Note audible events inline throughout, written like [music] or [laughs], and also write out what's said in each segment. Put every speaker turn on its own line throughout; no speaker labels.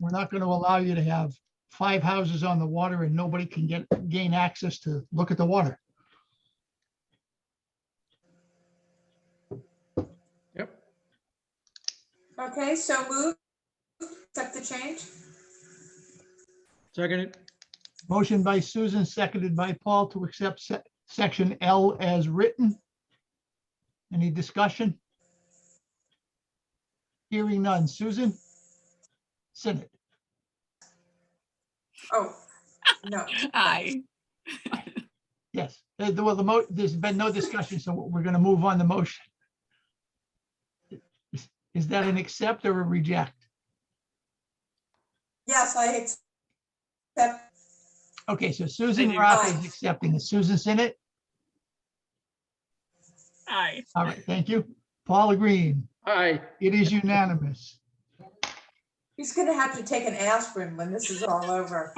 We're not going to allow you to have five houses on the water and nobody can get, gain access to look at the water.
Yep.
Okay, so move, accept the change.
Second it.
Motion by Susan, seconded by Paul to accept se- section L as written. Any discussion? Hearing none. Susan? Sinnet,
Oh, no.
Aye.
yes. Uh, the- Well, the mo, there's been no discussion, so we're going to move on the motion. Is- Is that an accept or a reject?
Yes, I accept.
Okay, so Susan
Thank you.
Roth is accepting. Is Susan Sinnet?
Aye.
All right, thank you. Paula Green,
Aye.
it is unanimous.
He's gonna have to take an aspirin when this is all over.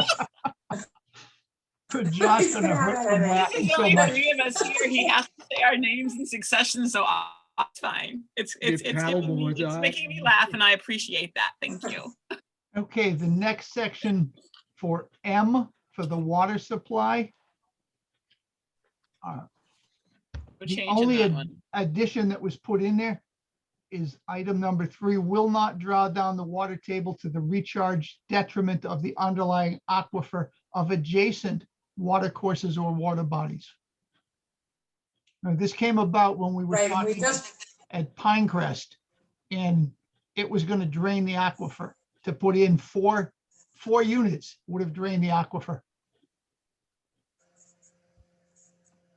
For Josh gonna hurt from laughing
There's
so
only
much.
three of us here. He has to say our names in succession, so I- it's fine. It's, it's,
You're
it's
palatable
giving me-
with
it's
that.
making me laugh and I appreciate that. Thank you.
Okay, the next section for M for the water supply. Uh,
No
The
change in
only
that
ad-
one.
Addition that was put in there is item number three, will not draw down the water table to the recharge detriment of the underlying aquifer of adjacent water courses or water bodies. Now, this came about when we [laughs] were talking.
Right, we just,
at Pinecrest. And it was gonna drain the aquifer. To put in four, four units would have drained the aquifer.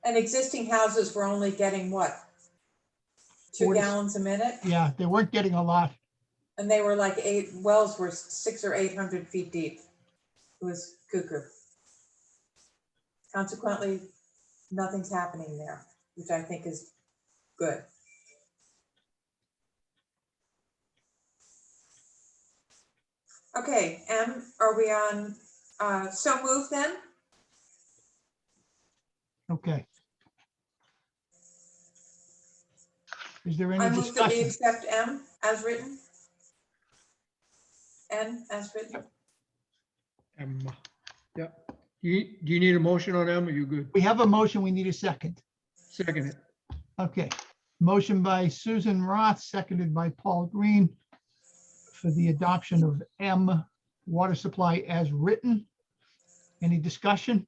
and existing houses were only getting what? Two
Forty-
gallons a minute?
Yeah, they weren't getting a lot.
And they were like eight, wells were six or eight hundred feet deep. It was cuckoo. Consequently, nothing's happening there, which I think is good. Okay, M, are we on, uh, so move then?
Okay. Is there
I
any
move that we
discussion?
accept M as written? N as written?
M. Yep. Do Um, you, do you need a motion on M? Are you good?
We have a motion, we need a second.
Second it.
Okay, motion by Susan Roth, seconded by Paul Green for the adoption of M water supply as written. Any discussion?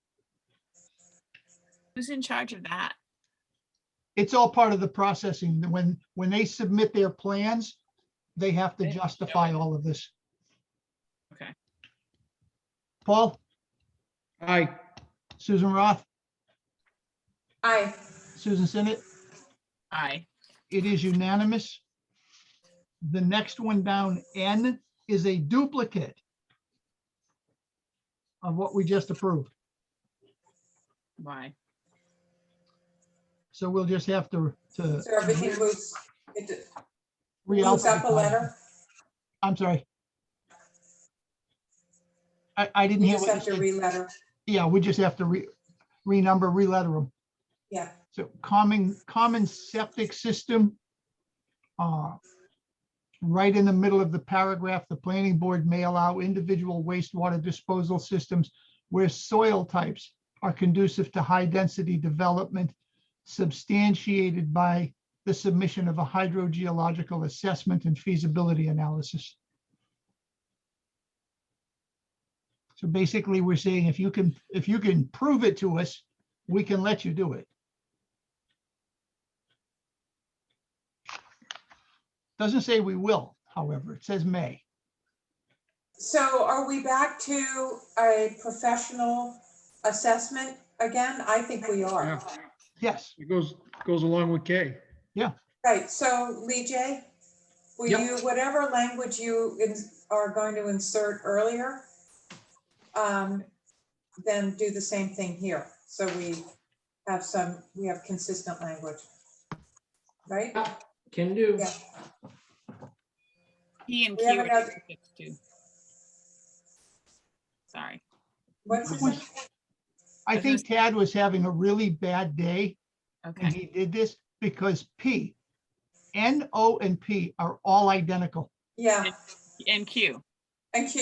Who's in charge of that?
it's all part of the processing. When, when they submit their plans, they have to
They have to show
justify all of this.
Okay.
Paul,
Aye.
Susan Roth,
Aye.
Susan Sinnet,
Aye.
it is unanimous. The next one down, N, is a duplicate of what we just approved.
Why?
So we'll just have to, to.
So everything moves, it moves up a
re-alphabetize.
letter?
I'm sorry. I, I didn't
You
hear what
just
you
have to
said.
re-letter,
Yeah, we just have to re, renumber, reletter them.
yeah.
So common, common septic system. uh, Right in the middle of the paragraph, the planning board may allow individual wastewater disposal systems where soil types are conducive to high density development substantiated by the submission of a hydrogeological assessment and feasibility analysis. So basically, we're saying if you can, if you can prove it to us, we can let you do it. Doesn't say we will, however, it says may.
So are we back to a professional assessment again? I think we are.
Yeah.
Yes,
It goes, goes along with K.
Right, so Lee J, will
Yep.
you, whatever language you ins- are going to insert earlier, um, then do the same thing here. So we have some, we have consistent language. Right?
Can do.
Yeah.
P and
We
Q.
have
are
another-
duplicates
[laughs]
too. Sorry.
What's his name?
I
Doesn't
think Tad was having a really bad day and
Okay.
he did this because P, N, O, and P are all identical.
Yeah,
And Q.
and Q.